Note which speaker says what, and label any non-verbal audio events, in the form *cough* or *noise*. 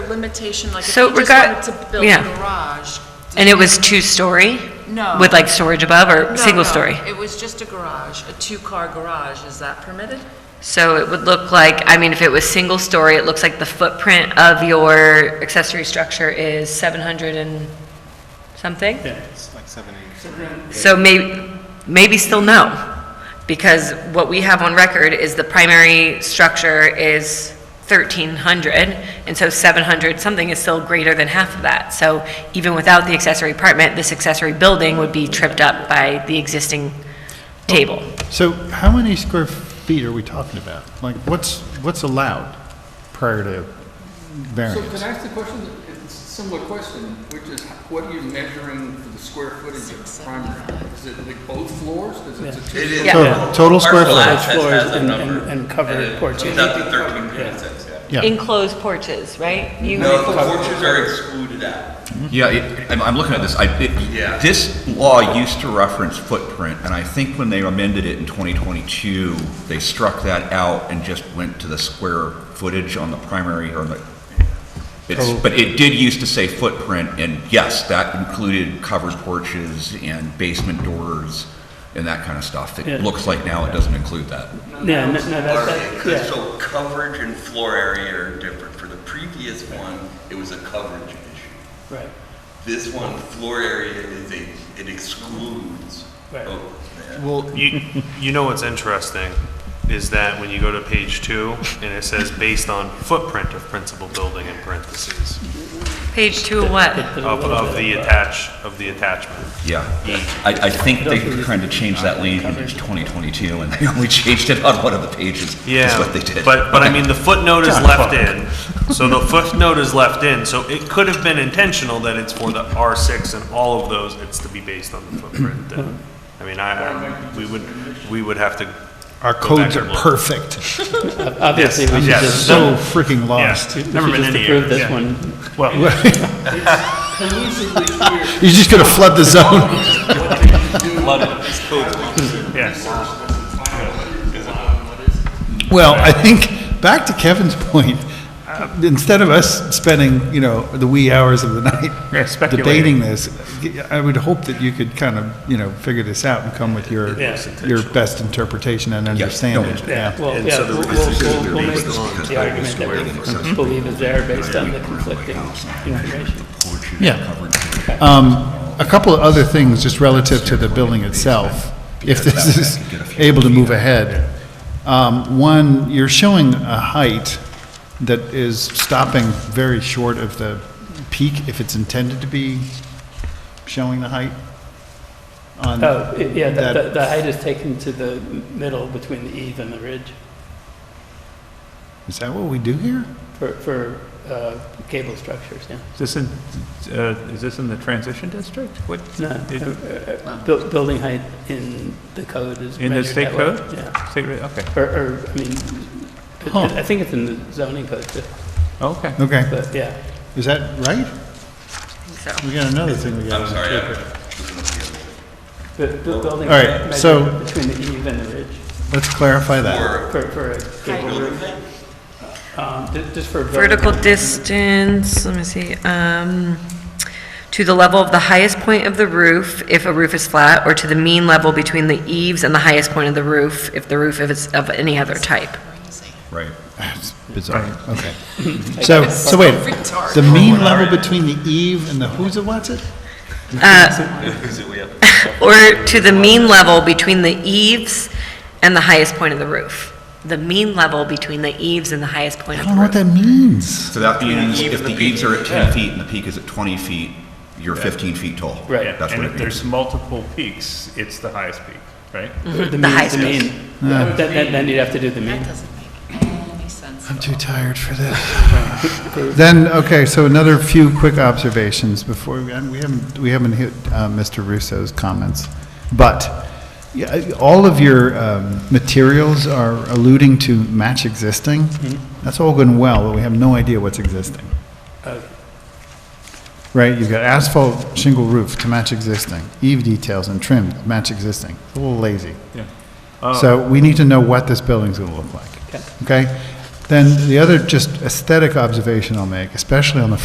Speaker 1: limitation, like if
Speaker 2: So
Speaker 1: you just
Speaker 2: regard-
Speaker 1: wanted to build a
Speaker 2: yeah.
Speaker 1: garage? did
Speaker 2: And it was
Speaker 1: you-
Speaker 2: two-story?
Speaker 1: No.
Speaker 2: With like storage above
Speaker 1: No,
Speaker 2: or single
Speaker 1: no,
Speaker 2: story?
Speaker 1: It was just a garage, a two-car garage. Is that permitted?
Speaker 2: So it would look like, I mean, if it was single story, it looks like the footprint of your accessory structure is 700 and something?
Speaker 3: Yeah, it's like seven, eight.
Speaker 2: So may, maybe still no, because what we have on record is the primary structure is 1,300, and so 700 something is still greater than half of that. So even without the accessory apartment, this accessory building would be tripped up by the existing table.
Speaker 3: So how many square feet are we talking about? Like, what's, what's allowed prior to
Speaker 4: So can
Speaker 3: variance?
Speaker 4: I ask the question, it's a similar question, which is, what are you measuring for the square footage of primary? Is it like both floors? Is it a two?
Speaker 5: It is.
Speaker 2: Yeah.
Speaker 3: Total- total square
Speaker 5: Parcel
Speaker 3: footage.
Speaker 5: access has
Speaker 6: Floors
Speaker 5: a
Speaker 6: and-
Speaker 5: number,
Speaker 6: and- and covered
Speaker 5: it-
Speaker 6: porches.
Speaker 5: 2013.6, yeah.
Speaker 3: Yeah,
Speaker 2: Enclosed porches, right? You-
Speaker 5: No, the porches are excluded out.
Speaker 7: Mm-hmm. Yeah, it- I'm, I'm looking at this, I,
Speaker 5: Yeah.
Speaker 7: it, this law used to reference footprint, and I think when they amended it in 2022, they struck that out and just went to the square footage on the primary or the, it's, but it did used to say footprint, and yes, that included covered porches and basement doors and that kind of stuff.
Speaker 6: Yeah.
Speaker 7: It looks like now it doesn't include that.
Speaker 6: Yeah, no, no, that's, that-
Speaker 5: Because
Speaker 6: yeah.
Speaker 5: so coverage and floor area are different. For the previous one, it was a coverage issue.
Speaker 6: Right.
Speaker 5: This one, floor area is a, it excludes.
Speaker 6: Right.
Speaker 5: both. Yeah.
Speaker 3: well,
Speaker 8: You, you know what's interesting is that when you go to page two and it says based on footprint of principal building in parentheses
Speaker 2: Page two of what?
Speaker 6: There's a
Speaker 8: of,
Speaker 6: little
Speaker 8: of
Speaker 6: bit
Speaker 8: the
Speaker 6: of, uh,
Speaker 8: attach, of the attachment.
Speaker 7: Yeah, I, I think they kind of changed that language in 2022, and they only *laughs* changed it on one of the pages, is
Speaker 8: Yeah,
Speaker 7: what they did.
Speaker 8: but, but I
Speaker 7: Okay. *laughs*
Speaker 8: mean, the footnote is
Speaker 3: John
Speaker 8: left
Speaker 3: Clark.
Speaker 8: in, so the footnote is left in, so it could have been intentional that it's for the R six and all of those, it's to be based on the footprint. then. I mean, I, I- we would, we would have to.
Speaker 3: our
Speaker 8: go back
Speaker 3: codes are
Speaker 8: and look.
Speaker 3: perfect.
Speaker 6: Obviously, we should
Speaker 8: yes.
Speaker 6: just, we
Speaker 3: So freaking lost.
Speaker 8: Yeah,
Speaker 6: should
Speaker 8: never been
Speaker 6: just
Speaker 8: any error,
Speaker 6: approve this
Speaker 8: yeah.
Speaker 6: one.
Speaker 8: Well,
Speaker 4: Collusively here.
Speaker 3: You're just going to flood the zone.
Speaker 8: yes.
Speaker 3: Well, I think, back to Kevin's point, uh, instead of us spending, you know, the wee hours of the
Speaker 6: *laughs* Yeah,
Speaker 3: night
Speaker 6: speculating.
Speaker 3: debating this, I would hope that you could kind of, you know, figure this out and come with your,
Speaker 6: Yes.
Speaker 3: your best interpretation and understanding.
Speaker 6: Yeah, well,
Speaker 8: And
Speaker 6: yeah,
Speaker 8: so the
Speaker 6: we'll,
Speaker 8: reason
Speaker 6: we'll,
Speaker 8: is
Speaker 6: we'll-
Speaker 8: they're
Speaker 6: we'll make
Speaker 8: based on
Speaker 6: the
Speaker 7: coverage
Speaker 6: argument
Speaker 7: square
Speaker 6: that we
Speaker 7: footage.
Speaker 6: believe is there based on the
Speaker 7: Yeah.
Speaker 6: conflicting information.
Speaker 3: Yeah. Um, a couple of other things, just relative to the building itself, if this is able to move ahead. Um, one, you're showing a height that is stopping very short of the peak, if it's intended to be showing the height. on-
Speaker 6: Oh, i- yeah, the- the,
Speaker 3: That-
Speaker 6: the height is taken to the middle between the eave and the ridge
Speaker 3: Is that what we do here?
Speaker 6: for, for, uh, cable structures, yeah.
Speaker 9: Is this in, uh, is this in the transition district? What,
Speaker 6: No, uh, uh, buil- building height in the code is
Speaker 9: In the
Speaker 6: measured
Speaker 9: state
Speaker 6: that way,
Speaker 9: code?
Speaker 6: Yeah,
Speaker 9: state re- okay,
Speaker 6: or, or, I mean, it-
Speaker 3: Huh.
Speaker 6: it- I think it's in the zoning code too,
Speaker 9: okay.
Speaker 3: Okay,
Speaker 6: but yeah.
Speaker 3: is that right?
Speaker 2: So-
Speaker 3: We got another thing we
Speaker 5: I'm
Speaker 3: got.
Speaker 5: sorry, I looking at the other.
Speaker 6: Bu- bu- Building
Speaker 3: All right,
Speaker 6: height
Speaker 3: so-
Speaker 6: measured between the eave and the ridge
Speaker 3: Let's clarify that.
Speaker 5: Or
Speaker 6: for, for a cable
Speaker 5: building
Speaker 6: roof,
Speaker 5: height?
Speaker 6: um, ju- just for. building
Speaker 2: Vertical
Speaker 6: height.
Speaker 2: distance, let me see, um, to the level of the highest point of the roof, if a roof is flat, or to the mean level between the eaves and the highest point of the roof, if the roof is of any other type.
Speaker 7: Right.
Speaker 3: It's Bizarre, okay. So, so wait, the mean level between the eve and the who's it, what's it?
Speaker 2: Or to the mean level between the eaves and the highest point of the roof. The mean level between the eaves and the highest point
Speaker 3: I
Speaker 2: of
Speaker 3: don't know what
Speaker 2: the roof.
Speaker 3: that means.
Speaker 7: So that means if the eaves are at 10 feet and the peak is at 20 feet, you're 15 feet tall.
Speaker 6: Right.
Speaker 7: That's
Speaker 9: And if
Speaker 7: what it means.
Speaker 9: there's multiple peaks, it's the highest peak, right?
Speaker 6: The
Speaker 2: The
Speaker 6: mean,
Speaker 2: highest
Speaker 6: the mean. Then, then- then you'd have to do the mean.
Speaker 1: That doesn't make any sense.
Speaker 3: I'm too tired for this. *laughs* Then, okay, so another few quick observations before, and we haven't, we haven't hit uh, Mr. Russo's comments. But, yeah, I- all of your um, materials are alluding to match existing. That's all good and well, but we have no idea what's existing. Right, you've got asphalt shingle roof to match existing, eave details and trim to match existing. It's A little lazy.
Speaker 9: Yeah.
Speaker 3: So we need to know what this building's gonna look like. Okay? Then the other just aesthetic observation I'll make, especially on the